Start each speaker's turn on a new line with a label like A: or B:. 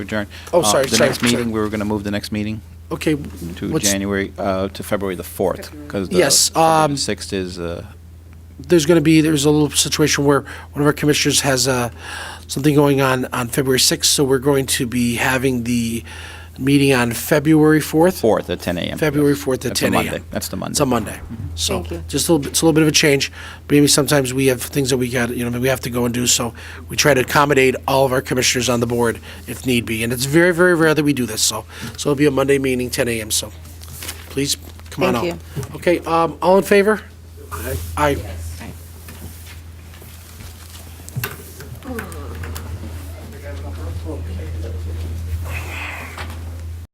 A: adjourn.
B: Oh,
A: Uh,
B: sorry,
A: The
B: sorry,
A: next meeting,
B: sorry.
A: we were going to move the next meeting
B: Okay,
A: to
B: what's-
A: January, uh, to February the 4th, because the
B: Yes,
A: February
B: um,
A: the 6th is, uh,
B: there's going to be, there's a little situation where one of our commissioners has uh, something going on on February 6th, so we're going to be having the meeting on February 4th.
A: 4th at 10 a.m.
B: February 4th at
A: That's a
B: 10
A: Monday.
B: a.m.
A: That's the Monday. Mm-hmm.
B: It's a Monday. So
C: Thank you.
B: just a little, bit- it's a little bit of a change. Maybe sometimes we have things that we got, you know, we have to go and do, so we try to accommodate all of our commissioners on the board if need be. And it's very, very rare that we do this, so, so it'll be a Monday meeting, 10 a.m., so please come on out.
C: Thank
B: Okay, um, all in favor? Aye.